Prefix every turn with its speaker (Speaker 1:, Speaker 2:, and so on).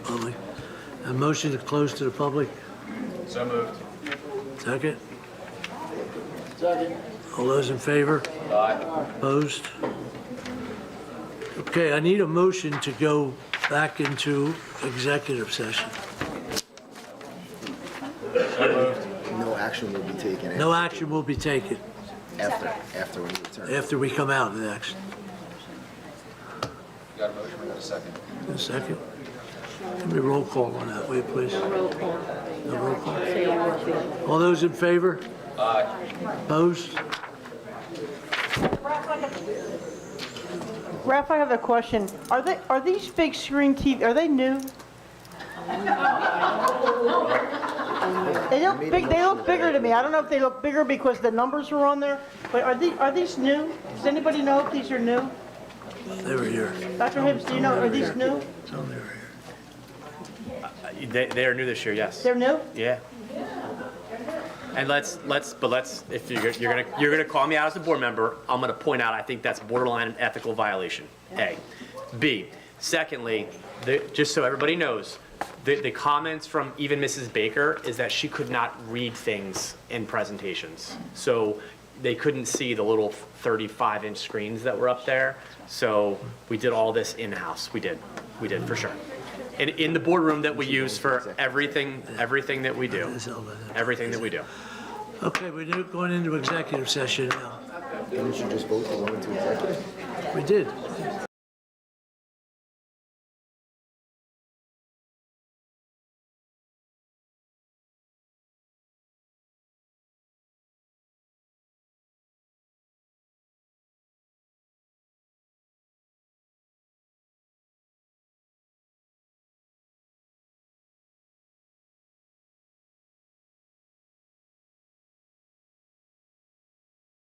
Speaker 1: A motion to close to the public,
Speaker 2: So moved.
Speaker 1: second? Second. All those in favor?
Speaker 2: Aye.
Speaker 1: Opposed? Okay, I need a motion to go back into executive session.
Speaker 3: No action will be taken
Speaker 1: No action will be taken
Speaker 3: after, after we return.
Speaker 1: after we come out of the action.
Speaker 2: Got a motion, we got a second.
Speaker 1: A second? Let me roll call on that, will you please?
Speaker 4: Roll call.
Speaker 1: A roll call.
Speaker 4: Sale Murphy.
Speaker 1: All those in favor?
Speaker 2: Aye.
Speaker 1: Opposed?
Speaker 5: Ralph, I have a question. Are they, are these big screen TV, are they new? They look big, they look bigger to me. I don't know if they look bigger because the numbers are on there, but are these, are these new? Does anybody know if these are new?
Speaker 1: They were here.
Speaker 5: Dr. Hibbs, do you know, are these new?
Speaker 1: Tell them they were here.
Speaker 6: They, they are new this year, yes.
Speaker 5: They're new?
Speaker 6: Yeah. And let's, let's, but let's, if you're, you're gonna, you're gonna call me out as a board member, I'm gonna point out, I think that's borderline an ethical violation, A. B, secondly, the, just so everybody knows, the, the comments from even Mrs. Baker is that she could not read things in presentations. So they couldn't see the little thirty-five inch screens that were up there, so we did all this in-house, we did, we did, for sure. In, in the boardroom that we use for everything, everything that we do
Speaker 1: It's all about that.
Speaker 6: everything that we do.
Speaker 1: Okay, we're now going into executive session now.
Speaker 3: Didn't you just vote to go into executive?
Speaker 1: We did.